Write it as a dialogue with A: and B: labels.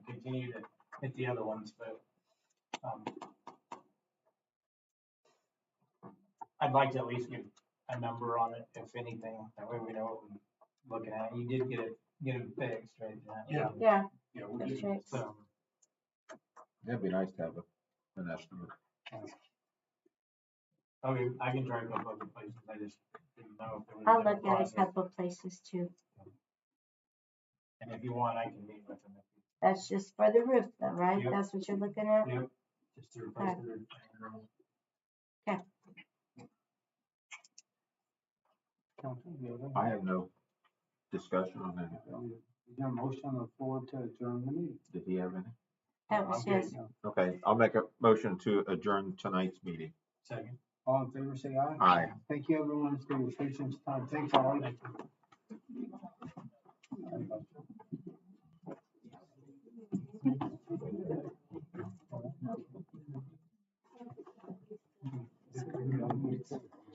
A: continue to hit the other ones, but, um, I'd like to at least give a number on it, if anything, that way we know what we're looking at. You did get it, get it fixed, right? Matt?
B: Yeah.
C: Yeah,
B: Yeah, we'll
C: that's
B: get,
C: right.
A: So,
D: That'd be nice to have a, an estimate.
A: I mean, I can drive up other places, I just didn't know if there was.
C: I'll
A: another
C: look at a
A: process.
C: couple places too.
A: And if you want, I can meet with them.
C: That's just for the roof though, right?
A: Yep.
C: That's what you're looking at?
A: Yep, just to replace the.
C: Okay.
D: I have no discussion on anything.
B: Is there a motion on the floor to adjourn the meeting? Oh,
D: Did he have any?
C: That was
A: Okay.
C: just,
D: Okay, I'll make a motion to adjourn tonight's meeting.
A: Second.
B: All in favor, say aye.
D: Aye.
B: Thank you everyone for your patience, time. Thanks, all.